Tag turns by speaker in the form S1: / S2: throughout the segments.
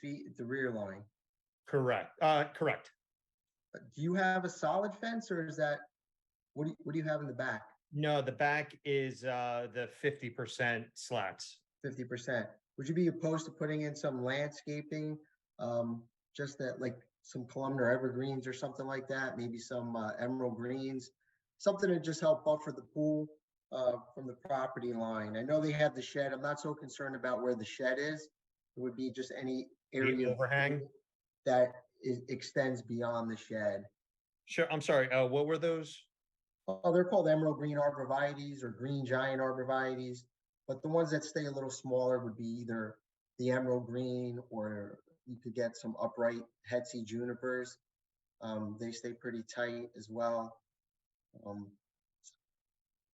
S1: feet at the rear line.
S2: Correct, uh, correct.
S1: Uh, Do you have a solid fence or is that, what do you, what do you have in the back?
S2: No, the back is, uh, the fifty percent slats.
S1: Fifty percent? Would you be opposed to putting in some landscaping? Um, just that, like, some columnar evergreens or something like that, maybe some uh, emerald greens? Something to just help buffer the pool, uh, from the property line. I know they have the shed. I'm not so concerned about where the shed is. It would be just any area. of
S2: overhang?
S1: pool That is, extends beyond the shed.
S2: Sure, I'm sorry, uh, what were those?
S1: Oh, they're called emerald green arborvitaes or green giant arborvitaes, but the ones that stay a little smaller would be either the emerald green or you could get some upright Hetzi junipers. Um, they stay pretty tight as well. Um,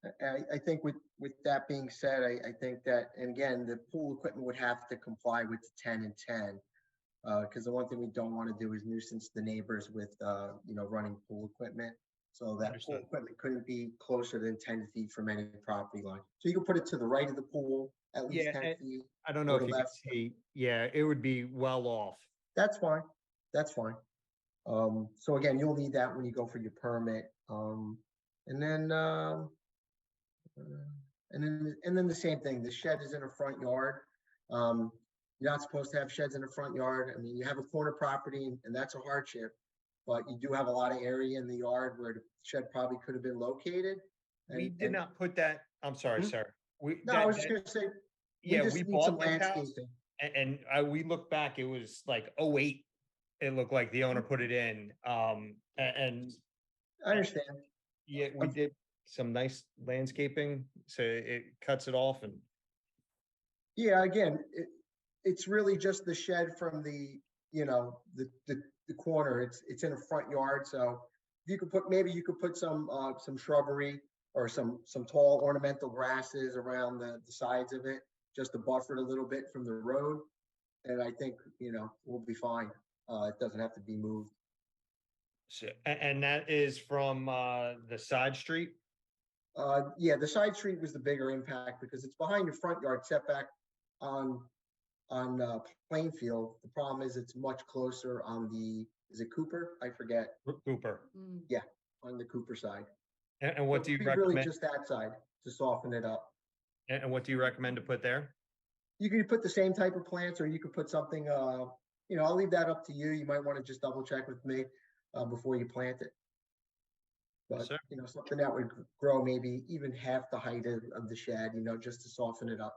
S1: I- I, I think with, with that being said, I, I think that, and again, the pool equipment would have to comply with the ten and ten. Uh, because the one thing we don't want to do is nuisance the neighbors with, uh, you know, running pool equipment. So that pool
S2: Understood.
S1: equipment couldn't be closer than ten feet from any property line. So you can put it to the right of the pool, at least
S2: Yeah,
S1: ten
S2: and-
S1: feet.
S2: I don't
S1: Go
S2: know
S1: to
S2: if you can
S1: left.
S2: see, yeah, it would be well off.
S1: That's fine, that's fine. Um, so again, you'll need that when you go for your permit, um, and then, um. uh, And then, and then the same thing, the shed is in a front yard, um, you're not supposed to have sheds in the front yard, I mean, you have a corner property and that's a hardship. But you do have a lot of area in the yard where the shed probably could have been located.
S2: We
S1: and-
S2: did
S1: and-
S2: not put that, I'm sorry,
S1: Hmm?
S2: sir. We,
S1: No, I
S2: that-
S1: was just
S2: that-
S1: gonna say, we
S2: yeah,
S1: just
S2: we
S1: need some
S2: bought that house
S1: landscaping,
S2: a- and I, we looked back, it was like, oh, eight. It looked like the
S1: Hmm.
S2: owner put it in, um, a- and
S1: I understand,
S2: Yeah, we
S1: Um,
S2: did some nice landscaping, so it cuts it off and,
S1: Yeah, again, it, it's really just the shed from the, you know, the, the, the corner, it's, it's in a front yard, so you could put, maybe you could put some, uh, some shrubbery or some, some tall ornamental grasses around the, the sides of it, just to buffer it a little bit from the road. And I think, you know, we'll be fine, uh, it doesn't have to be moved.
S2: so, a- and that is from, uh, the side street?
S1: Uh, yeah, the side street was the bigger impact because it's behind your front yard setback on, on, uh, Plainfield. The problem is it's much closer on the, is it Cooper? I forget,
S2: Coo- Cooper,
S1: on the Cooper side.
S2: A- and,
S1: So
S2: what do you
S1: it'd be Really
S2: recommend,
S1: just that side to soften it up.
S2: a- and what do you recommend to put there?
S1: You can put the same type of plants or you could put something, uh, you know, I'll leave that up to you. You might want to just double check with me, uh, before you plant it. But,
S2: sir.
S1: you know, something that would grow maybe even half the height of, of the shed, you know, just to soften it up.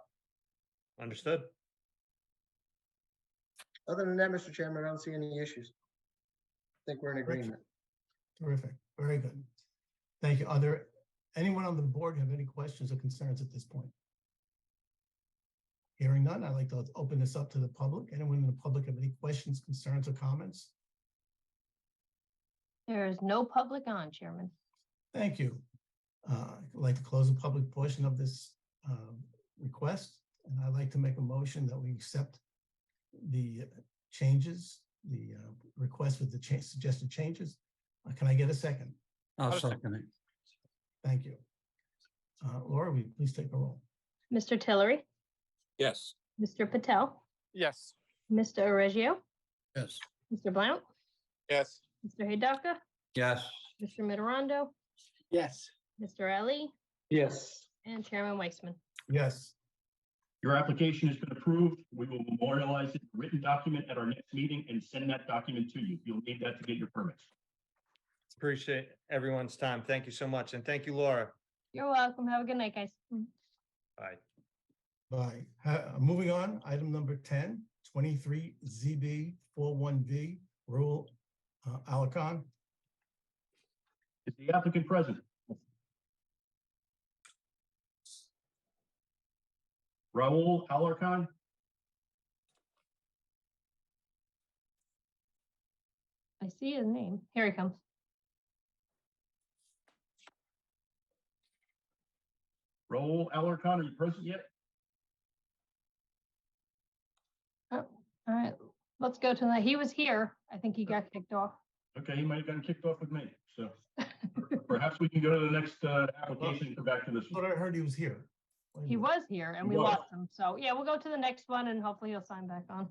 S2: Understood?
S1: Other than that, Mr. Chairman, I don't see any issues. I think we're in
S3: Rich?
S1: agreement.
S3: Terrific, very good. Thank you. Are there, anyone on the board have any questions or concerns at this point? Hearing none, I'd like to open this up to the public. Anyone in the public have any questions, concerns, or comments?
S4: There is no public on, Chairman.
S3: Thank you. Uh, I'd like to close the public portion of this um, request, and I'd like to make a motion that we accept the changes, the uh, request with the cha- suggested changes. Uh, Can I get a second?
S5: I'll
S2: I'll
S5: second it.
S3: Thank you. Uh, Laura, will you please take a roll?
S4: Mr. Tillery,
S5: Yes.
S4: Mr. Patel,
S6: Yes.
S4: Mr. Oregio,
S5: Yes.
S4: Mr. Blount,
S6: Yes.
S4: Mr. Hidaka,
S5: Yes.
S4: Mr. Mitterondo,
S6: Yes.
S4: Mr. Ali,
S1: Yes.
S4: and Chairman Weissman.
S3: Yes.
S7: Your application has been approved. We will memorialize it, in a written document at our next meeting and send that document to you. You'll need that to get your permits.
S2: Appreciate everyone's time. Thank you so much, and thank you, Laura.
S4: You're welcome. Have a good night, guys. Mm,
S2: Bye.
S3: Bye. Ha- Moving on, item number 10, 23 ZB 41B Rural uh, Alicon.
S7: Is the applicant present? Raul Alarcon?
S4: I see his name. Here he comes.
S7: Raul Alarcon, are you present yet?
S4: Oh, all right. Let's go to that. He was here. I think he got kicked off.
S7: Okay, he might have gotten kicked off with me, so perhaps we can go to the next uh, application and come back to this
S3: Thought
S7: one.
S3: I heard he was here. Wait a
S4: He
S3: minute.
S4: was here and
S7: He
S4: we
S7: was.
S4: lost him. So yeah, we'll go to the next one and hopefully he'll sign back on.